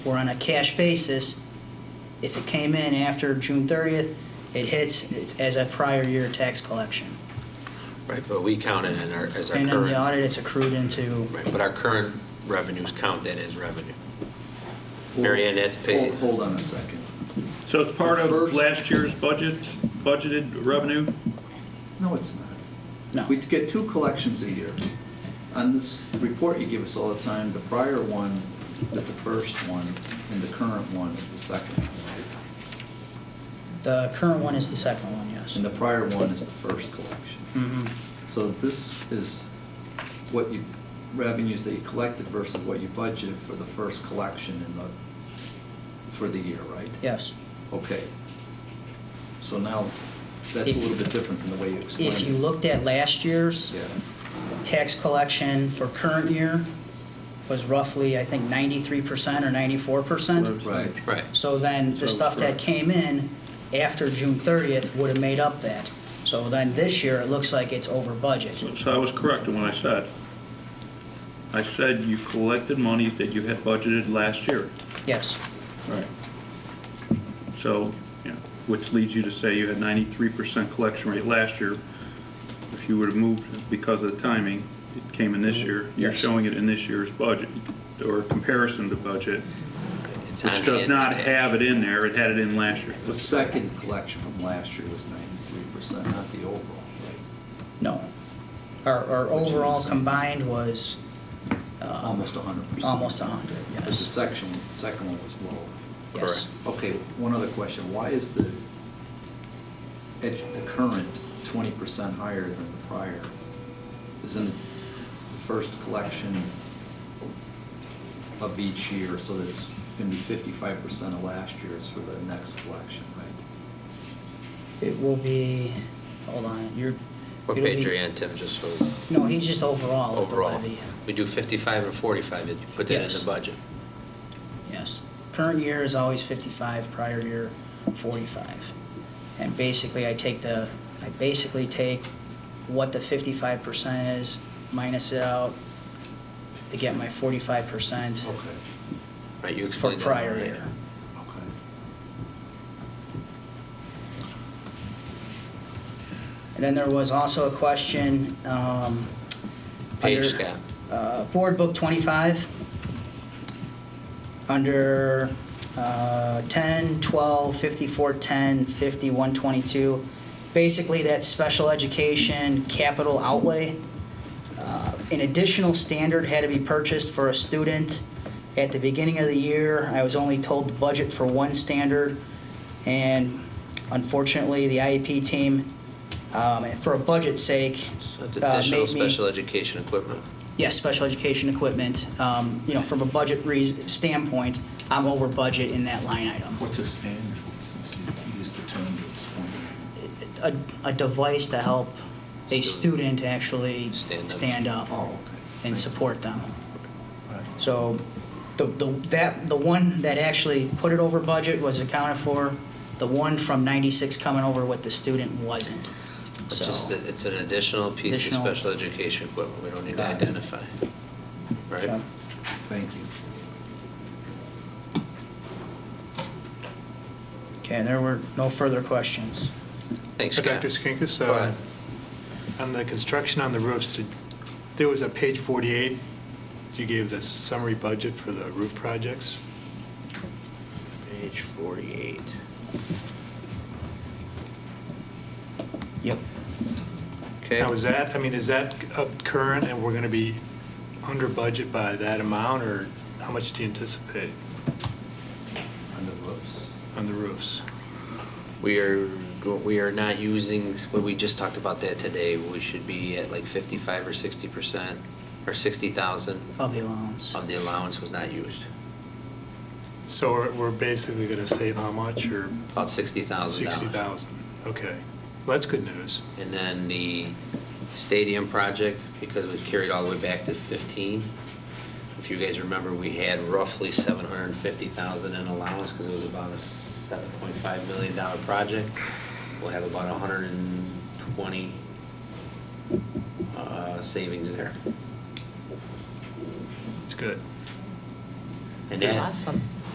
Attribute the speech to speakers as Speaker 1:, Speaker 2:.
Speaker 1: where on a cash basis, if it came in after June 30th, it hits it's as a prior year tax collection.
Speaker 2: Right, but we count it in our, as our
Speaker 1: And in the
Speaker 2: current,
Speaker 1: audit, it's accrued into,
Speaker 2: right, but our current revenues count that as revenue. Mary Ann, that's paid.
Speaker 3: Hold- Hold on a second.
Speaker 4: So it's part
Speaker 3: The
Speaker 4: of
Speaker 3: first-
Speaker 4: last year's budget, budgeted revenue?
Speaker 3: No, it's not.
Speaker 1: no.
Speaker 3: We get two collections a year. On this report you give us all the time, the prior one is the first one, and the current one is the second.
Speaker 1: The current one is the second one, yes.
Speaker 3: And the prior one is the first collection.
Speaker 1: Mhm.
Speaker 3: So this is what you, revenues that you collected versus what you budgeted for the first collection in the, for the year, right?
Speaker 1: Yes.
Speaker 3: Okay. So now, that's
Speaker 1: If-
Speaker 3: a little bit different than the way you explained it.
Speaker 1: If you looked at last year's
Speaker 3: Yeah,
Speaker 1: tax collection for current year was roughly, I think, 93% or 94%.
Speaker 3: right.
Speaker 2: Right,
Speaker 1: So then the
Speaker 4: So,
Speaker 1: stuff that
Speaker 4: correct.
Speaker 1: came in after June 30th would have made up that. So then this year, it looks like it's over budget.
Speaker 4: So so I was correct in what I said. I said you collected monies that you had budgeted last year.
Speaker 1: Yes,
Speaker 4: Right. So, yeah, which leads you to say you had 93% collection rate last year. If you would have moved because of the timing, it came in this
Speaker 3: Mm-hmm.
Speaker 4: year. You're
Speaker 1: Yes.
Speaker 4: showing it in this year's budget, or comparison to budget,
Speaker 2: It's on
Speaker 4: which
Speaker 2: hand,
Speaker 4: does
Speaker 2: it's
Speaker 4: not
Speaker 2: cash.
Speaker 4: have it in there. It had it in last year.
Speaker 3: The second collection from last year was ninety-three percent, not the overall, right?
Speaker 1: no. Our, our
Speaker 3: Which is
Speaker 1: overall
Speaker 3: insane.
Speaker 1: combined was uh,
Speaker 3: Almost hundred percent.
Speaker 1: almost 100,
Speaker 3: But the
Speaker 1: yes.
Speaker 3: section, second one was lower.
Speaker 1: Yes.
Speaker 3: Okay, one other question, why is the, edu- the current twenty percent higher than the prior? Isn't it the first collection of each year, so that it's gonna be fifty-five percent of last year's for the next collection, right?
Speaker 1: It will be, hold on, you're.
Speaker 2: What
Speaker 1: it'll
Speaker 2: page
Speaker 1: be-
Speaker 2: are you on, Tim, just so,
Speaker 1: No, he's just overall. at the
Speaker 2: overall?
Speaker 1: levy.
Speaker 2: We do 55 and 45, did you put that in
Speaker 1: Yes.
Speaker 2: the budget?
Speaker 1: Yes. Current year is always 55, prior year 45. And basically, I take the, I basically take what the 55% is, minus it out to get my 45%
Speaker 3: Okay,
Speaker 2: Right, you
Speaker 1: for
Speaker 2: explained that.
Speaker 1: prior
Speaker 2: already.
Speaker 1: year.
Speaker 3: okay.
Speaker 1: And then there was also a question, um.
Speaker 2: Page,
Speaker 1: under,
Speaker 2: Scott.
Speaker 1: Uh, Board Book 25, under, uh, 10, 12, 54, 10, 50, 122. Basically, that's special education capital outlay. Uh, An additional standard had to be purchased for a student. At the beginning of the year, I was only told to budget for one standard, and unfortunately, the IEP team, um, for a budget sake,
Speaker 2: So
Speaker 1: uh,
Speaker 2: Additional
Speaker 1: made me-
Speaker 2: special education equipment.
Speaker 1: Yes, special education equipment. Um, You know, from a budget reas- standpoint, I'm over budget in that line item.
Speaker 3: What's a standard, since you used the term to explain it?
Speaker 1: A a device to help a
Speaker 2: Student.
Speaker 1: student actually
Speaker 2: Stand up.
Speaker 1: stand up
Speaker 3: Oh, okay.
Speaker 1: and support them.
Speaker 3: Right.
Speaker 1: So the, the, that, the one that actually put it over budget was accounted for. The one from 96 coming over with the student wasn't.
Speaker 2: It's just,
Speaker 1: So,
Speaker 2: that it's an additional piece of
Speaker 1: Additional.
Speaker 2: special education equipment we don't need to
Speaker 1: Got it.
Speaker 2: identify. Right?
Speaker 1: Okay.
Speaker 3: Thank you.
Speaker 1: okay, there were no further questions.
Speaker 2: Thanks,
Speaker 5: Uh,
Speaker 2: Scott.
Speaker 5: Dr. Skinkis,
Speaker 2: Go ahead.
Speaker 5: uh, on the construction on the roofs, did- there was a page 48, you gave the summary budget for the roof projects.
Speaker 2: Page 48.
Speaker 1: Yep.
Speaker 2: Okay.
Speaker 5: Now, is uh, that, I mean, is that up current and we're going to be under budget by that amount, or how much do you anticipate
Speaker 3: On the roofs?
Speaker 5: on the roofs?
Speaker 2: We are, we are not using, when we just talked about that today, we should be at like 55 or 60 percent, or 60,000
Speaker 1: Of the allowance.
Speaker 2: of the allowance was not used.
Speaker 5: So we're- we're basically going to save how much, or
Speaker 2: About $60,000.
Speaker 5: 60,000? Okay, well, that's good news.
Speaker 2: And then the stadium project, because we carried all the way back to 15. If you guys remember, we had roughly 750,000 in allowance because it was about a 7.5 million dollar project. We'll have about 120 uh, savings there.
Speaker 5: It's good.
Speaker 2: And that-
Speaker 6: Awesome.